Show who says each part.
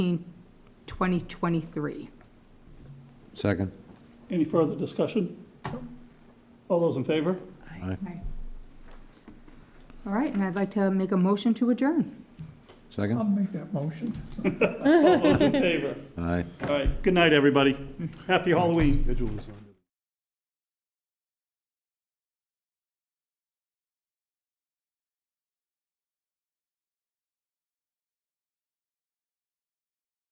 Speaker 1: 2023.
Speaker 2: Second.
Speaker 3: Any further discussion? All those in favor?
Speaker 2: Aye.
Speaker 1: All right, and I'd like to make a motion to adjourn.
Speaker 2: Second.
Speaker 4: I'll make that motion.
Speaker 3: All those in favor?
Speaker 2: Aye.
Speaker 3: All right, good night, everybody. Happy Halloween.
Speaker 5: Schedule is on there.